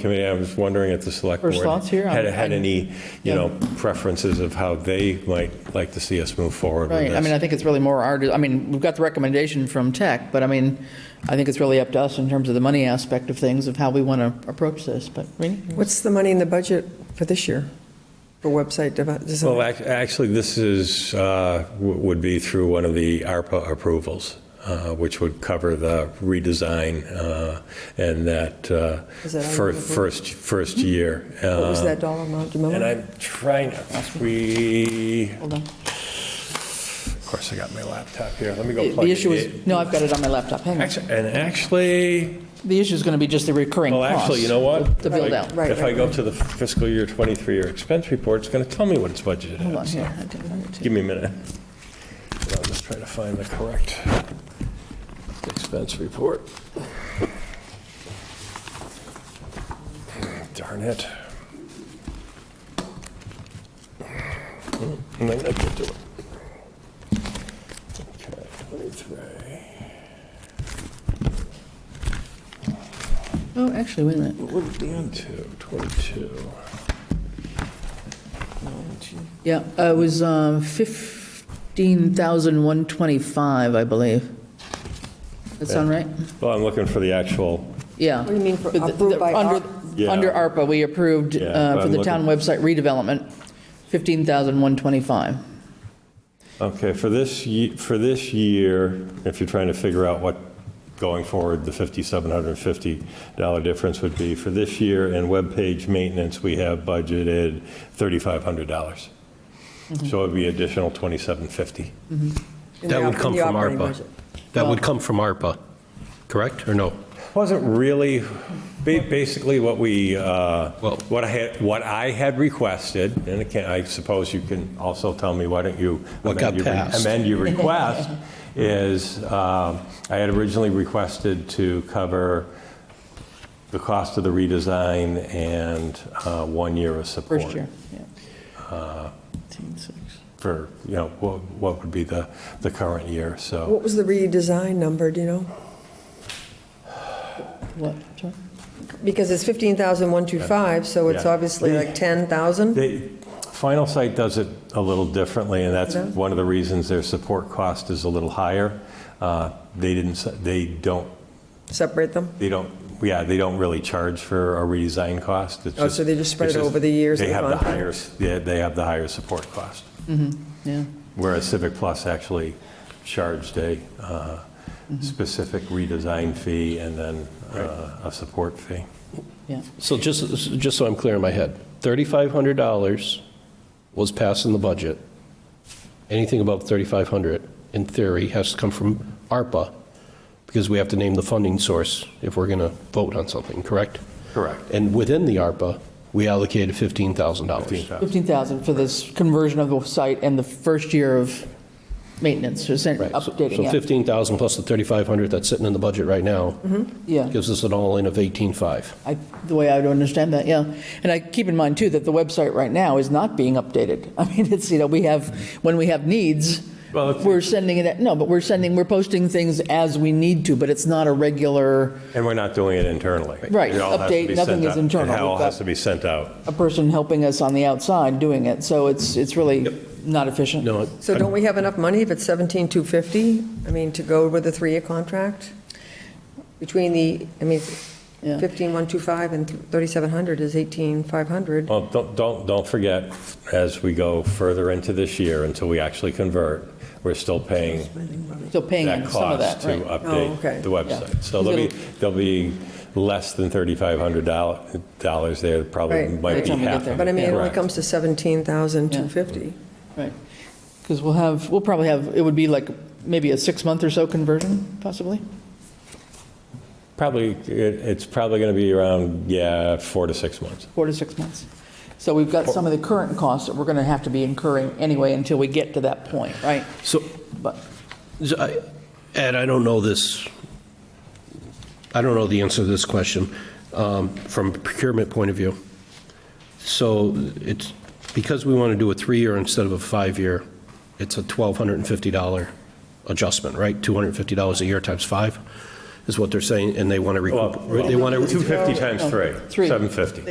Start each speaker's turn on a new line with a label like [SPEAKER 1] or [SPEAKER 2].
[SPEAKER 1] committee, I was wondering if the select board
[SPEAKER 2] First thoughts here?
[SPEAKER 1] had,
[SPEAKER 2] I'm-
[SPEAKER 1] had any, you
[SPEAKER 2] Yeah.
[SPEAKER 1] know, preferences of how they might like to see us move forward with
[SPEAKER 2] Right, I mean, I
[SPEAKER 1] this.
[SPEAKER 2] think it's really more our, I mean, we've got the recommendation from tech, but I mean, I think it's really up to us in terms of the money aspect of things, of how we want to approach this, but, Rini?
[SPEAKER 3] What's the money in the budget for this year for website dev-
[SPEAKER 1] Well,
[SPEAKER 3] design?
[SPEAKER 1] ac- actually, this is, uh, w- would be through one of the ARPA approvals, uh, which would cover the redesign uh, and that uh,
[SPEAKER 3] Is that on
[SPEAKER 1] fir-
[SPEAKER 3] the board?
[SPEAKER 1] first, first year. Um,
[SPEAKER 3] What was
[SPEAKER 4] uh,
[SPEAKER 3] that dollar amount, do you
[SPEAKER 1] And
[SPEAKER 3] remember?
[SPEAKER 1] I'm trying, to- we,
[SPEAKER 2] Hold on.
[SPEAKER 1] of course, I got my laptop here. Let me go
[SPEAKER 2] The
[SPEAKER 1] plug
[SPEAKER 2] the
[SPEAKER 1] it
[SPEAKER 2] issue
[SPEAKER 1] in.
[SPEAKER 2] is, no, I've got it on my laptop, hang on.
[SPEAKER 1] Actu- And actually,
[SPEAKER 2] The issue is going to be just the recurring
[SPEAKER 1] Well,
[SPEAKER 2] cost.
[SPEAKER 1] actually, you know what?
[SPEAKER 2] The build out.
[SPEAKER 3] Right,
[SPEAKER 1] If I go to the fiscal year 23 year expense report, it's going to tell me what it's budgeted
[SPEAKER 2] Hold on,
[SPEAKER 1] at. so
[SPEAKER 2] here. I didn't write it to you.
[SPEAKER 1] Give me a minute. I'll just try to find the correct expense report. Darn it. I'm Hmm, not going to do it. Okay, 23.
[SPEAKER 2] Oh, actually, wait a minute.
[SPEAKER 1] What would it be on to? 22.
[SPEAKER 2] Yeah, uh, it was uh, 15,125, I believe. That sound right?
[SPEAKER 1] Well, I'm looking for the actual
[SPEAKER 2] Yeah.
[SPEAKER 3] What do you mean for
[SPEAKER 2] But the-
[SPEAKER 3] approved by
[SPEAKER 2] under-
[SPEAKER 3] ARP?
[SPEAKER 1] Yeah.
[SPEAKER 2] Under ARPA, we approved
[SPEAKER 1] Yeah,
[SPEAKER 2] uh,
[SPEAKER 1] but
[SPEAKER 2] for
[SPEAKER 1] I'm
[SPEAKER 2] the town website redevelopment, 15,125.
[SPEAKER 1] Okay, for this, ye- for this year, if you're trying to figure out what, going forward, the $5,750 difference would be, for this year in webpage maintenance, we have budgeted $3,500. So it would be additional 2,750.
[SPEAKER 3] In the
[SPEAKER 4] That would
[SPEAKER 3] op-
[SPEAKER 4] come
[SPEAKER 3] in the
[SPEAKER 4] from
[SPEAKER 3] operating
[SPEAKER 4] ARPA.
[SPEAKER 3] budget.
[SPEAKER 4] That would come from ARPA, correct, or no?
[SPEAKER 1] Wasn't really, ba- basically what we, uh,
[SPEAKER 4] Well-
[SPEAKER 1] what I had, what I had requested, and I can- I suppose you can also tell me, why don't you?
[SPEAKER 4] What got
[SPEAKER 1] amend your re-
[SPEAKER 4] passed.
[SPEAKER 1] Amend your request, is um, I had originally requested to cover the cost of the redesign and uh, one year of support.
[SPEAKER 2] First year, yeah. 15,600.
[SPEAKER 1] For, you know, what what would be the, the current year, so.
[SPEAKER 3] What was the redesign number, do you know?
[SPEAKER 2] What, sorry?
[SPEAKER 3] Because it's 15,125, so it's
[SPEAKER 1] Yeah.
[SPEAKER 3] obviously like 10,000?
[SPEAKER 1] They, Final Site does it a little differently, and that's
[SPEAKER 3] Yeah.
[SPEAKER 1] one of the reasons their support cost is a little higher. Uh, They didn't, s- they don't,
[SPEAKER 3] Separate them?
[SPEAKER 1] they don't, yeah, they don't really charge for a redesign cost. It's
[SPEAKER 3] Oh,
[SPEAKER 1] just-
[SPEAKER 3] so they just spread
[SPEAKER 1] it's
[SPEAKER 3] it over the years
[SPEAKER 1] They
[SPEAKER 3] of the
[SPEAKER 1] have the
[SPEAKER 3] contract?
[SPEAKER 1] higher, s- yeah, they have the higher support cost,
[SPEAKER 2] Yeah,
[SPEAKER 1] whereas Civic Plus actually charged a uh,
[SPEAKER 3] Mm-hmm.
[SPEAKER 1] specific redesign fee and then uh, a support fee.
[SPEAKER 2] yeah.
[SPEAKER 4] So just, just so I'm clear in my head, $3,500 was passed in the budget. Anything above 3,500, in theory, has to come from ARPA, because we have to name the funding source if we're going to vote on something, correct?
[SPEAKER 1] Correct.
[SPEAKER 4] And within the ARPA, we allocated $15,000.
[SPEAKER 1] 15,000.
[SPEAKER 2] 15,000 for this conversion of the site and the first year of maintenance, so sent-
[SPEAKER 4] Right, so-
[SPEAKER 2] updating
[SPEAKER 4] So
[SPEAKER 2] it.
[SPEAKER 4] 15,000 plus the 3,500 that's sitting in the budget right now
[SPEAKER 3] Mm-hmm.
[SPEAKER 2] Yeah.
[SPEAKER 4] gives us an all-in of 18,500.
[SPEAKER 2] I, the way I would understand that, yeah. And I keep in mind, too, that the website right now is not being updated. I mean, it's, you know, we have, when we have needs,
[SPEAKER 1] Well, it's-
[SPEAKER 2] we're sending it, no, but we're sending, we're posting things as we need to, but it's not a regular,
[SPEAKER 1] And we're not doing it internally.
[SPEAKER 2] Right,
[SPEAKER 1] It all has to
[SPEAKER 2] update,
[SPEAKER 1] be
[SPEAKER 2] nothing
[SPEAKER 1] sent
[SPEAKER 2] is
[SPEAKER 1] out-
[SPEAKER 2] internal.
[SPEAKER 1] It all
[SPEAKER 2] We've got-
[SPEAKER 1] has to be sent out.
[SPEAKER 2] a person helping us on the outside doing it. So it's, it's really not efficient.
[SPEAKER 4] No,
[SPEAKER 3] So don't we have enough money if it's 17,250? I mean, to go with the three-year contract? Between the, I mean,
[SPEAKER 2] Yeah.
[SPEAKER 3] 15,125 and 3,700 is 18,500.
[SPEAKER 1] Well, don't, don't, don't forget, as we go further into this year, until we actually convert, we're still paying
[SPEAKER 2] Still paying
[SPEAKER 1] that
[SPEAKER 2] some of
[SPEAKER 1] cost
[SPEAKER 2] that,
[SPEAKER 1] to
[SPEAKER 2] right?
[SPEAKER 3] Oh, okay.
[SPEAKER 1] update the website. So
[SPEAKER 2] Yeah.
[SPEAKER 1] there'll be, there'll be less than $3,500 dollars there, probably
[SPEAKER 3] Right.
[SPEAKER 1] might
[SPEAKER 2] By the
[SPEAKER 1] be
[SPEAKER 2] time we get
[SPEAKER 1] half.
[SPEAKER 2] there.
[SPEAKER 1] of
[SPEAKER 3] But I mean, it only
[SPEAKER 1] Correct.
[SPEAKER 3] comes to 17,250.
[SPEAKER 2] Right. Because we'll have, we'll probably have, it would be like maybe a six-month or so conversion, possibly?
[SPEAKER 1] Probably, it- it's probably going to be around, yeah, four to six months.
[SPEAKER 2] Four to six months. So we've got some of the current costs that we're going to have to be incurring anyway until we get to that point, right?
[SPEAKER 4] so
[SPEAKER 2] But,
[SPEAKER 4] So I- Ed, I don't know this, I don't know the answer to this question um, from a procurement point of view. So it's, because we want to do a three-year instead of a five-year, it's a $1,250 adjustment, right? $250 a year times five? is what they're saying, and they want to recoup, they want to
[SPEAKER 1] 250 times three,
[SPEAKER 2] Oh, Three.
[SPEAKER 1] 750.